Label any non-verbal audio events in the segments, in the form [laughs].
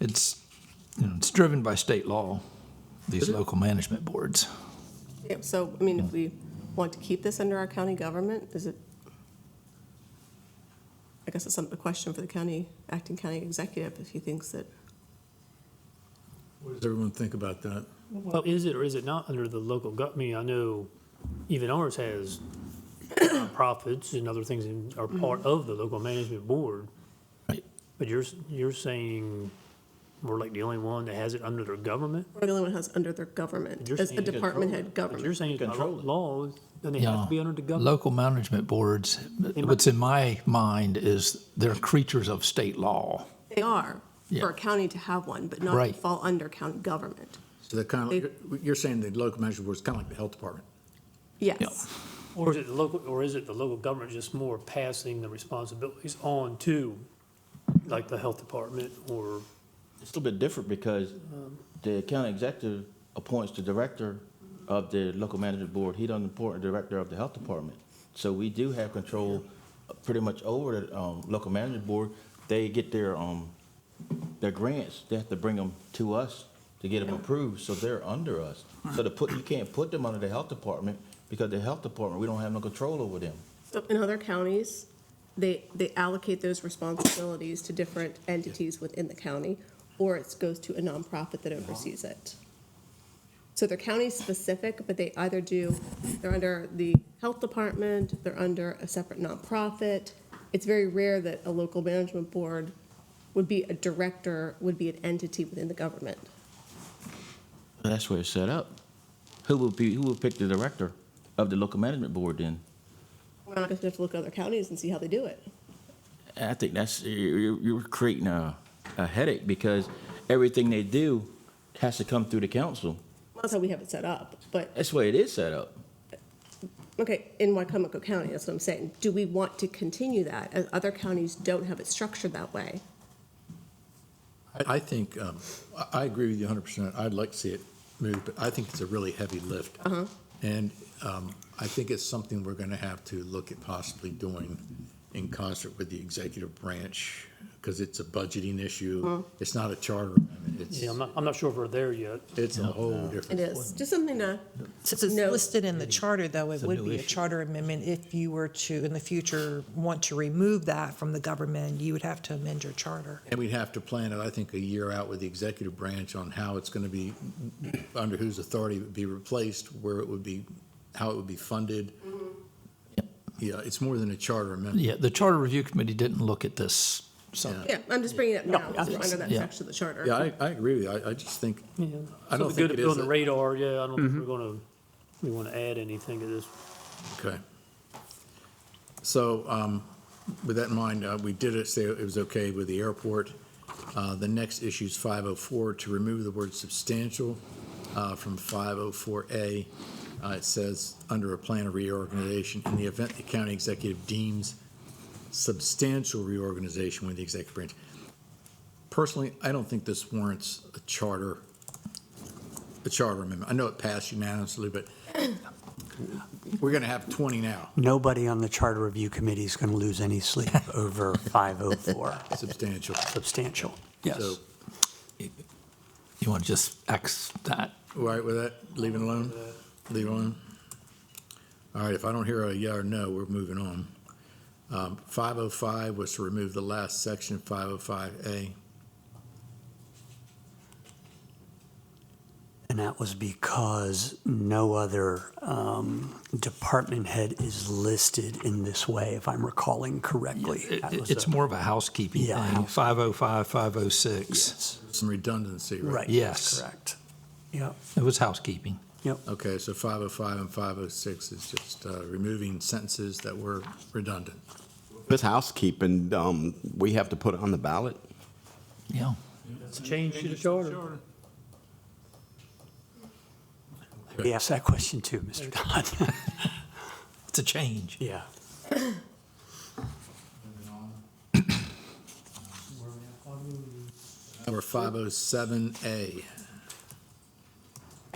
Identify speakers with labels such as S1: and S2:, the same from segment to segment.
S1: it's, you know, it's driven by state law, these local management boards.
S2: Yeah, So, I mean, if we want to keep this under our county government, is it? I guess it's some- a question for the county, acting county executive, if he thinks that,
S3: What does everyone think about that?
S4: Well, is it or is it not under the local government? I mean, I know even ours has profits and other things in- are
S2: Mm-hmm.
S4: part of the local management board.
S1: Right.
S4: But you're, s- you're saying we're like the only one that has it under their government?
S2: we're the only one who has under their government,
S4: You're
S2: as a
S4: saying-
S2: department head
S4: But you're
S2: government.
S4: saying it's by
S3: Control it.
S4: law, then they have to be under the government.
S1: Local management boards, what's in my mind is they're creatures of state law.
S2: They are,
S1: Yeah.
S2: for a county to have one, but not to
S1: Right.
S2: fall under county government.
S3: So they're kind of, you're- you're saying the local management board is kind of like the health department.
S2: Yes,
S4: Or is it the local, or is it the local government just more passing the responsibilities on to like the health department or?
S5: It's a little bit different because the county executive appoints the director of the local management board. He doesn't appoint the director of the health department. So we do have control uh, pretty much over the um, local management board. They get their, um, their grants, they have to bring them to us to get them approved, so they're under us. So to put, you can't put them under the health department because the health department, we don't have no control over them.
S2: So in other counties, they, they allocate those responsibilities to different entities within the county, or it goes to a nonprofit that oversees it. So they're county-specific, but they either do, they're under the health department, they're under a separate nonprofit. It's very rare that a local management board would be a director, would be an entity within the government.
S5: That's where it's set up. Who will be, who will pick the director of the local management board then?
S2: We're not gonna have to look at other counties and see how they do it.
S5: I think that's you're, you're creating a, a headache because everything they do has to come through the council.
S2: That's how we have it set up, but
S5: That's the way it is set up.
S2: Okay, in Wycomico County, that's what I'm saying. Do we want to continue that, as other counties don't have it structured that way?
S3: I, I think, um, I, I agree with you hundred percent. I'd like to see it moved, but I think it's a really heavy lift. And, um, I think it's something we're gonna have to look at possibly doing in concert with the executive branch, because it's a budgeting issue. It's not a charter amendment.
S4: Yeah, I'm
S3: It's,
S4: not, I'm not sure if we're there yet.
S3: it's a whole
S2: It
S3: different.
S2: is, just something to,
S6: Since it's
S2: No.
S6: listed in the charter, though, it
S1: a
S6: would
S1: new
S6: be a
S1: issue.
S6: charter amendment. If you were to, in the future, want to remove that from the government, you would have to amend your charter.
S3: And we'd have to plan it, I think, a year out with the executive branch on how it's going to be, under whose authority it would be replaced, where it would be, how it would be funded. Yeah, it's more than a charter amendment.
S1: Yeah, the Charter Review Committee didn't look at this, so,
S2: yeah, I'm just bringing it up now, because we're under that
S1: Yeah.
S2: section of the charter.
S3: Yeah, I, I agree with you. I, I just think, I don't
S4: Something good
S3: think
S4: to
S3: it is.
S4: put
S3: Mm-hmm.
S4: on the
S3: a-
S4: radar, yeah, I don't think we're gonna, we wanna add anything to this.
S3: Okay. So um, with that in mind, uh, we did it, say it was okay with the airport. Uh, The next issue is 504, to remove the word substantial uh, from 504A. Uh, It says, under a plan of reorganization, in the event the county executive deems substantial reorganization with the executive branch. Personally, I don't think this warrants a charter, a charter amendment. I know it passed unanimously, but we're going to have 20 now.
S7: Nobody on the Charter Review Committee is going to lose any sleep over 504.
S3: Substantial.
S7: Substantial,
S3: So,
S7: yes.
S1: you want to just X that?
S3: all right with that? Leave it alone? Leave it alone? All right, if I don't hear a yeah or no, we're moving on. Um, 505 was to remove the last section, 505A.
S7: And that was because no other um, department head is listed in this way, if I'm recalling correctly.
S1: It-
S7: That was
S1: It's
S7: a-
S1: more of a housekeeping
S7: Yeah,
S1: thing,
S7: housekeeping.
S1: 505, 506.
S7: Yes,
S3: Some redundancy, right?
S7: Right.
S1: Yes.
S7: Correct. Yep,
S1: It was housekeeping.
S7: yep.
S3: Okay, so 505 and 506 is just uh, removing sentences that were redundant.
S8: This housekeeping, um, we have to put it on the ballot.
S1: Yeah.
S4: It's a change to the charter.
S7: We asked that question too,
S1: [laughs]
S7: Mr. Dodd.
S1: It's a change.
S7: [laughs] Yeah.
S3: Number 507A.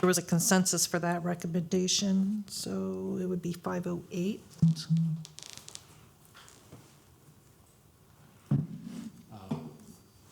S6: There was a oh consensus for that recommendation, so it would be 508.